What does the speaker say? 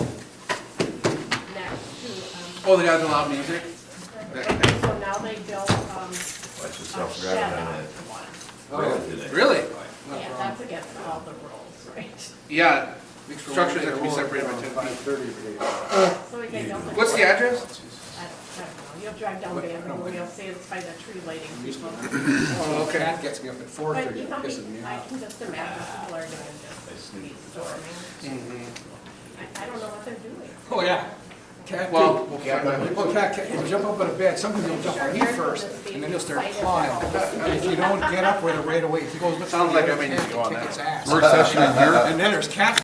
Oh, the guys with loud music? That- that- um, So now they built, um, Watch a yourself shed grabbing on on one. that. Really? Yeah, that's against all the rules, right? Yeah, structures have to be separated by ten feet. So we can build a- What's the address? I don't I don't know, you'll drive down Vanderbilt, you'll see it's by the tree lighting people. Oh, okay. That gets me up at four But thirty, you know, I pisses me off. can just imagine people are doing just these storming. Mm-hmm. I, I don't know what they're doing. Oh, yeah. Cat, Well, too. Well, cat, cat, they'll jump up on a bed, sometimes they'll jump on you first, and then they'll start clawing. If you don't get up with it right away, if he goes. Sounds like I may need to go on that. Kick its ass. Work session in here? And then there's cat